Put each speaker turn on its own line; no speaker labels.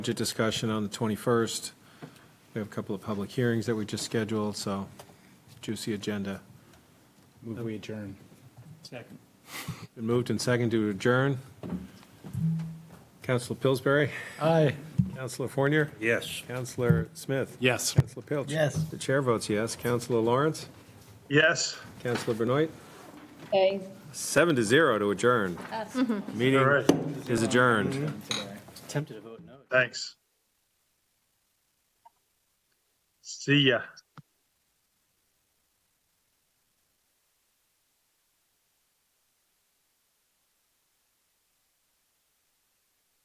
Budget discussion on the 21st. We have a couple of public hearings that we just scheduled, so juicy agenda.
Move we adjourn.
Second.
Been moved and seconded to adjourn. Counselor Pillsbury,
Aye.
Counselor Fournier,
Yes.
Counselor Smith,
Yes.
Counselor Pilch.
Yes.
The chair votes yes. Counselor Lawrence,
Yes.
Counselor Benoit,
Okay.
seven to zero to adjourn.
All
Meeting
right,
is adjourned.
Tempted to vote no.
thanks. See ya.